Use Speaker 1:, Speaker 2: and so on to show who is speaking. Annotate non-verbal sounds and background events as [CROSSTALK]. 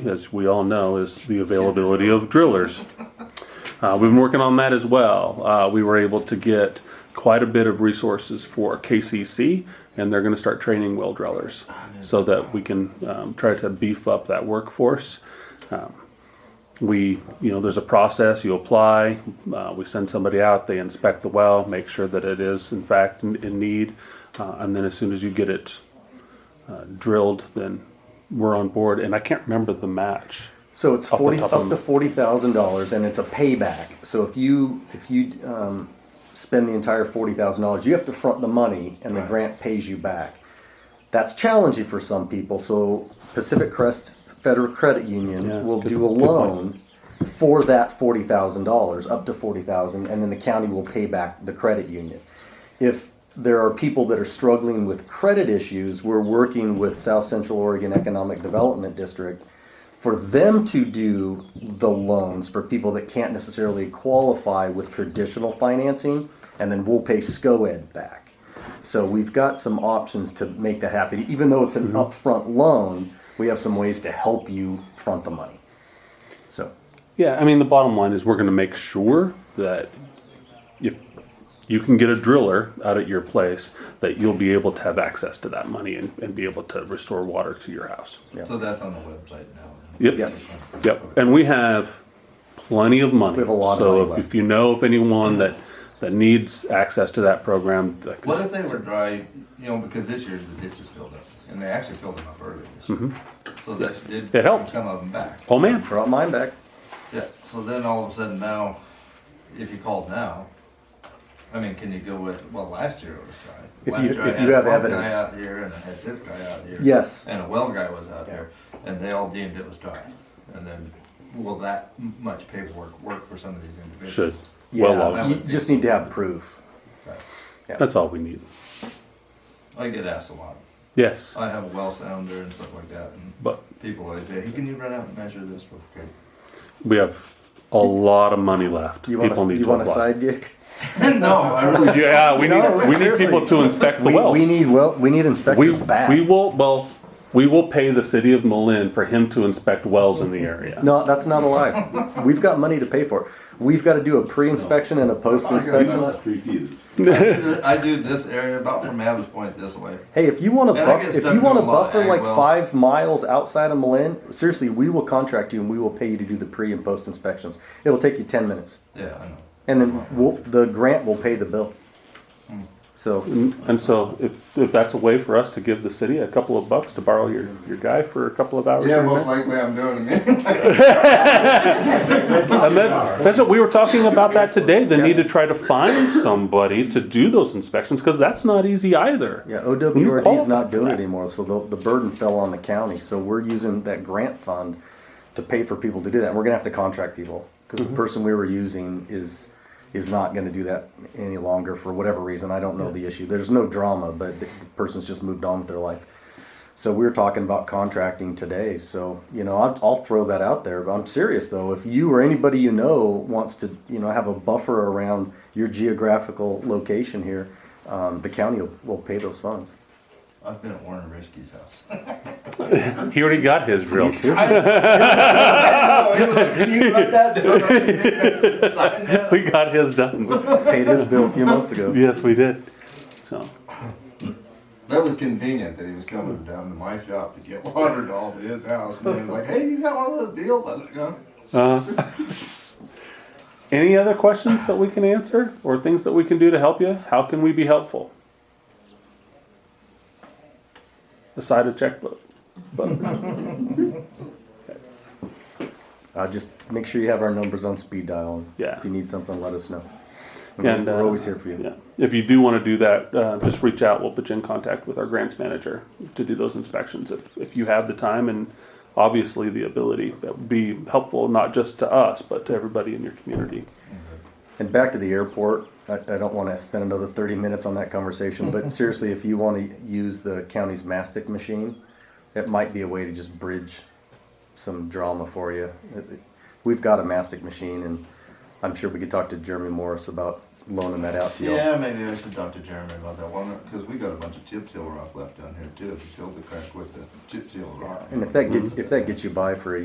Speaker 1: as we all know, is the availability of drillers. Uh, we've been working on that as well. Uh, we were able to get quite a bit of resources for KCC, and they're going to start training well drillers so that we can um, try to beef up that workforce. Um, we, you know, there's a process. You apply, uh, we send somebody out, they inspect the well, make sure that it is in fact in, in need, uh, and then as soon as you get it uh, drilled, then we're on board. And I can't remember the match.
Speaker 2: So it's
Speaker 1: Up the
Speaker 2: forty
Speaker 1: top
Speaker 2: up
Speaker 1: of-
Speaker 2: to forty thousand dollars, and it's a payback. So if you if you um, spend the entire forty thousand dollars, you have to front the money, and the
Speaker 1: Right.
Speaker 2: grant pays you back. That's challenging for some people. So Pacific Crest Federal Credit Union
Speaker 1: Yeah,
Speaker 2: will
Speaker 1: good-
Speaker 2: do a
Speaker 1: good point.
Speaker 2: loan um, for that forty thousand dollars, up to forty thousand, and then the county will pay back the credit union. If there are people that are struggling with credit issues, we're working with South Central Oregon Economic Development District for them to do the loans for people that can't necessarily qualify with traditional financing, and then we'll pay SCOED back. So we've got some options to make that happen. Even though it's an upfront loan, we have some ways to help you front the money. So
Speaker 1: Yeah, I mean, the bottom line is we're going to make sure that if you can get a driller out at your place, that you'll be able to have access to that money and, and be able to restore water to your house.
Speaker 3: So that's on the website now.
Speaker 1: Yep.
Speaker 2: yes,
Speaker 1: Yep. And we have plenty of money.
Speaker 2: We have a lot of
Speaker 1: so
Speaker 2: money
Speaker 1: if,
Speaker 2: left.
Speaker 1: if you know of anyone that that needs access to that program, that can-
Speaker 3: What if they were dry, you know, because this year the ditch is filled up, and they actually filled them up early this year.
Speaker 2: Mm-hmm.
Speaker 3: So this did.
Speaker 1: It helped.
Speaker 3: Some of them back.
Speaker 1: oh man,
Speaker 2: brought mine back.
Speaker 3: Yeah, so then all of a sudden now, if you called now, I mean, can you go with, well, last year it was dry.
Speaker 2: If
Speaker 3: Last
Speaker 2: you-
Speaker 3: year I
Speaker 2: if
Speaker 3: had
Speaker 2: you have
Speaker 3: one
Speaker 2: evidence.
Speaker 3: Guy out here and I had this guy out here.
Speaker 2: Yes.
Speaker 3: And a well guy was out
Speaker 2: Yeah.
Speaker 3: there, and they all deemed it was dry. And then, will that m- much paperwork work for some of these individuals?
Speaker 1: should
Speaker 2: Yeah,
Speaker 1: well off.
Speaker 2: you just need to have proof.
Speaker 3: Right.
Speaker 1: That's all we need.
Speaker 3: I get asked a lot.
Speaker 1: Yes,
Speaker 2: Uh,
Speaker 3: I have a well sounder and stuff like that, and
Speaker 1: but
Speaker 3: people always say, hey, can you run out and measure this real quick?
Speaker 1: we have a lot of money left.
Speaker 2: You want
Speaker 1: People
Speaker 2: a,
Speaker 1: need
Speaker 2: you
Speaker 1: to
Speaker 2: want a
Speaker 1: apply.
Speaker 2: side gig?
Speaker 3: [LAUGHS] No, I really
Speaker 1: Yeah, we
Speaker 2: No,
Speaker 1: need, we need
Speaker 2: seriously.
Speaker 1: people to inspect the
Speaker 2: We,
Speaker 1: wells.
Speaker 2: we need well we need
Speaker 1: We,
Speaker 2: inspectors back.
Speaker 1: we will, well, we will pay the city of Malin for him to inspect wells in the area.
Speaker 2: no, that's not a lie. We've got money to pay for. it. We've got to do a pre-inspection and a post-inspection.
Speaker 3: I do this area about from Adam's Point this way.
Speaker 2: Hey, if you want to
Speaker 3: Man, I
Speaker 2: buff,
Speaker 3: get
Speaker 2: if
Speaker 3: stuck
Speaker 2: you want to
Speaker 3: doing a lot of
Speaker 2: buffer
Speaker 3: ag
Speaker 2: like
Speaker 3: wells.
Speaker 2: five miles outside of Malin, seriously, we will contract you and we will pay you to do the pre and post inspections. It'll take you ten minutes,
Speaker 3: Yeah, I know.
Speaker 2: and then we'll, the grant will pay the bill.
Speaker 3: Hmm.
Speaker 2: So
Speaker 1: And so if, if that's a way for us to give the city a couple of bucks to borrow your, your guy for a couple of hours.
Speaker 3: Yeah,
Speaker 1: here and
Speaker 3: most
Speaker 1: there.
Speaker 3: likely I'm doing it.
Speaker 1: And then, that's what, we were talking about that today, the need to try to find somebody to do those inspections, cause that's not easy either.
Speaker 2: yeah,
Speaker 1: When you
Speaker 2: OWRD is
Speaker 1: qualify
Speaker 2: not
Speaker 1: for
Speaker 2: doing it
Speaker 1: that.
Speaker 2: anymore, so the, the burden fell on the county. So we're using that grant fund to pay for people to do that. And we're gonna have to contract people because
Speaker 1: Mm-hmm.
Speaker 2: the person we were using is is not going to do that any longer for whatever reason. I don't know the issue. There's no drama, but the, the person's just moved on with their life. So we were talking about contracting today. So you know, I'll, I'll throw that out there. But I'm serious though. If you or anybody you know wants to, you know, have a buffer around your geographical location here, um, the county will, will pay those funds.
Speaker 3: [LAUGHS] I've been at Warren Risky's house. [LAUGHS]
Speaker 1: He already got his real.
Speaker 2: This is-
Speaker 3: Can Oh, you write that down? Sign that?
Speaker 1: We got his done. [LAUGHS]
Speaker 2: paid his bill a few months ago.
Speaker 1: Yes, we did. So,
Speaker 3: That was convenient that he was coming down to my shop to get water to all of his house. And he was like, hey, you got one of those deals? I was like, "Huh?"
Speaker 1: any other questions that we can answer or things that we can do to help you? How can we be helpful? Aside a checkbook. But
Speaker 2: Uh, just make sure you have our numbers on speed dial.
Speaker 1: Yeah.
Speaker 2: If you need something, let us know. We're,
Speaker 1: And
Speaker 2: we're
Speaker 1: uh,
Speaker 2: always here for you.
Speaker 1: Yeah. If you do want to do that, uh, just reach out. We'll put you in contact with our grants manager to do those inspections if, if you have the time and obviously the ability. That would be helpful not just to us, but to everybody in your community.
Speaker 2: And back to the airport, I, I don't want to spend another 30 minutes on that conversation, but seriously, if you want to use the county's mastic machine, it might be a way to just bridge some drama for you. It- it- We've got a mastic machine, and I'm sure we could talk to Jeremy Morris about loaning that out to y'all.
Speaker 3: Yeah, maybe I should talk to Jeremy about that one because we got a bunch of chip seal rock left down here too. If you filled the crack with the chip seal rock.
Speaker 2: And if that gets if that gets you by for a